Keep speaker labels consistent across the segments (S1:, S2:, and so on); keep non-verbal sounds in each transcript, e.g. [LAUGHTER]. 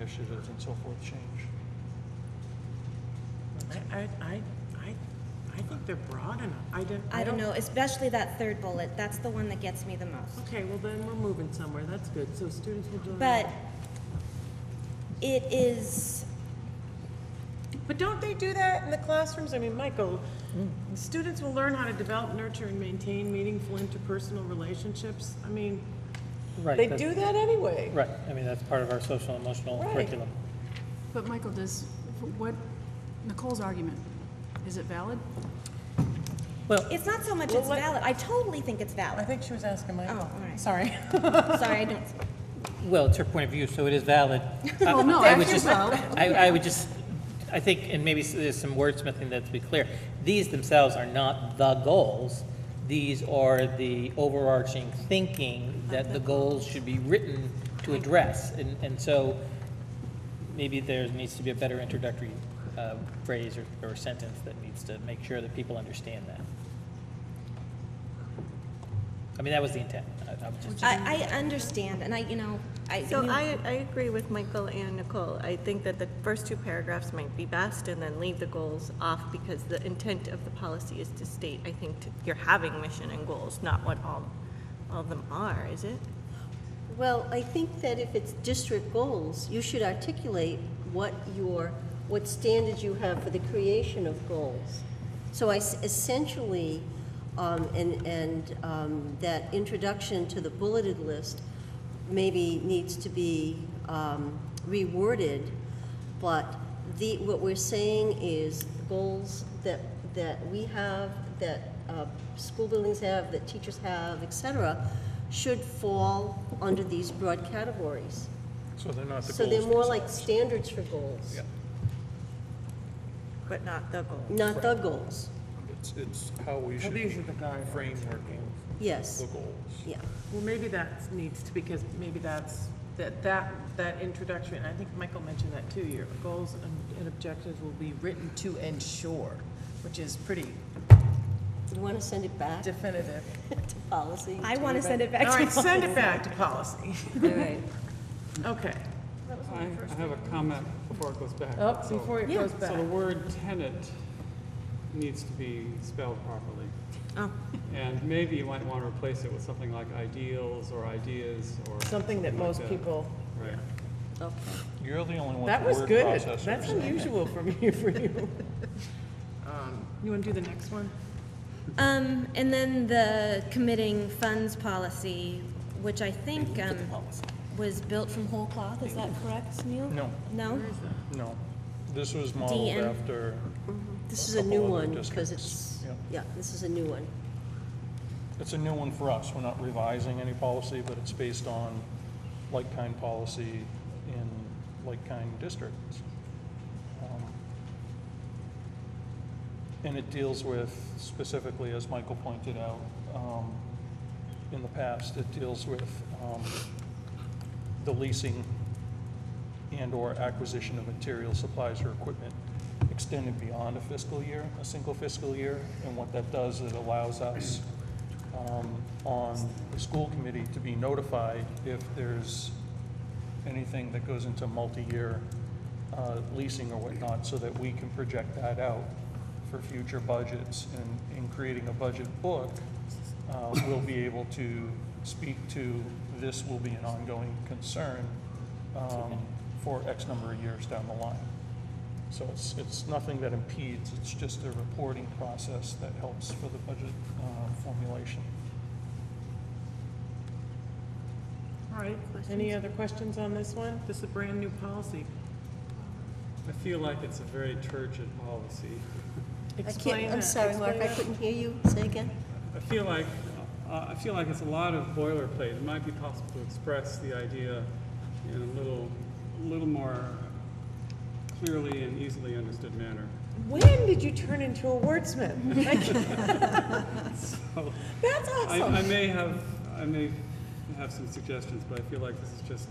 S1: initiatives and so forth change.
S2: I, I, I, I, I think they're broad enough. I didn't.
S3: I don't know, especially that third bullet, that's the one that gets me the most.
S2: Okay, well then we're moving somewhere. That's good. So students will join.
S3: But it is,
S2: But don't they do that in the classrooms? I mean, Michael, students will learn how to develop, nurture, and maintain meaningful interpersonal relationships. I mean,
S4: Right.
S2: they do
S4: that's-
S2: that anyway.
S4: Right, I mean, that's part of our social and emotional
S2: Right.
S4: curriculum.
S5: But Michael, does, what, Nicole's argument, is it valid?
S4: Well,
S3: it's not so much it's valid, I totally think it's valid.
S2: think she was asking
S3: Oh, all right.
S2: Sorry.
S3: Sorry, I don't,
S4: well, it's her point of view, so it is valid. I-
S5: [LAUGHS] Well, no,
S4: I
S5: I
S4: would
S5: feel
S4: just-
S5: valid.
S4: I, I would just, I think, and maybe s- there's some wordsmithing that's to be clear, these themselves are not the goals. These are the overarching thinking that the goals should be written to address. And, and so maybe there needs to be a better introductory uh, phrase or, or sentence that needs to make sure that people understand that. I mean, that was the intent. I, I'm just,
S3: I, I understand, and I, you know, I.
S6: So
S3: you-
S6: I, I agree with Michael and Nicole. I think that the first two paragraphs might be best and then leave the goals off because the intent of the policy is to state, I think, to- you're having mission and goals, not what all, all of them are, is it?
S7: Well, I think that if it's district goals, you should articulate what your, what standards you have for the creation of goals. So I s- essentially, um, and, and um, that introduction to the bulleted list maybe needs to be um, reworded, but the, what we're saying is goals that, that we have, that uh, school buildings have, that teachers have, et cetera, should fall under these broad categories.
S1: So they're not the goals.
S7: So they're more like
S1: themselves.
S7: standards for goals,
S1: Yeah,
S6: But not the goal.
S7: not the goals.
S1: it's, it's how we should be
S2: these are the guidelines.
S1: frameworking
S7: Yes,
S1: the goals.
S7: yeah.
S2: Well, maybe that needs to, because maybe that's, that, that, that introduction, I think Michael mentioned that too, your goals and- and objectives will be written to ensure, which is pretty
S7: You want to send it back [LAUGHS] to
S2: definitive.
S7: policy?
S3: I want to send it back
S2: All
S3: to
S2: right, send it back to policy.
S7: All right.
S2: Okay.
S8: I I have a comment before it goes back.
S2: Oh,
S8: So-
S2: before it goes back.
S8: So the word tenant needs to be spelled properly.
S2: Oh.
S8: And maybe you might want to replace it with something like ideals or ideas or.
S2: Something that
S8: like
S2: most people,
S8: Right.
S1: You're the only one with
S2: that
S1: the
S2: was
S1: word
S2: good.
S1: processor.
S2: That's unusual from you, for you. Um, You want to [LAUGHS] do the next one?
S3: Um, and then the committing funds policy, which I think, um, was built from whole cloth, is that correct, Neil?
S1: No.
S3: No?
S1: No, this was modeled
S3: DN.
S1: after,
S7: This
S1: A
S7: is a
S1: couple
S7: new
S1: other
S7: one, because
S1: districts,
S7: it's,
S1: yeah.
S7: yeah, this is a new one.
S1: it's a new one for us. We're not revising any policy, but it's based on like-kind policy in like-kind districts. Um, And it deals with specifically, as Michael pointed out, um, in the past, it deals with, um, the leasing and/or acquisition of materials, supplies, or equipment extended beyond a fiscal year, a single fiscal year. And what that does, it allows us um, on the school committee to be notified if there's anything that goes into multi-year uh, leasing or whatnot, so that we can project that out for future budgets. And in creating a budget book, uh, we'll be able to speak to, this will be an ongoing concern um, for X number of years down the line. So it's, it's nothing that impedes, it's just a reporting process that helps for the budget uh, formulation.
S2: All right, any other questions on this one? This is a brand-new policy.
S8: I feel like it's a very turgid policy.
S7: I can't-
S2: Explain
S7: I'm
S2: that.
S7: sorry, Mark, I
S2: Explain that.
S7: couldn't hear you. Say again?
S8: I feel like, uh, I feel like it's a lot of boilerplate. It might be possible to express the idea in a little, little more clearly and easily understood manner.
S2: When did you turn into a wordsmith?
S8: So-
S2: That's
S8: I,
S2: awesome.
S8: I may have, I may have some suggestions, but I feel like this is just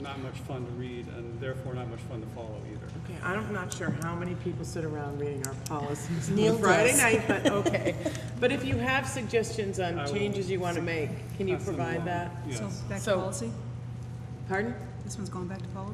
S8: not much fun to read and therefore not much fun to follow either.
S2: Okay, I'm not sure how many people sit around reading our policies
S7: Neil
S2: on Friday
S7: does.
S2: night, but
S7: [LAUGHS]
S2: okay. But if you have suggestions on
S8: I will
S2: changes you want to make, can you
S8: Pass them
S2: provide
S8: along.
S2: that?
S8: Yes.
S5: So back to
S2: So-
S5: policy?
S2: Pardon?
S5: This one's going back to policy?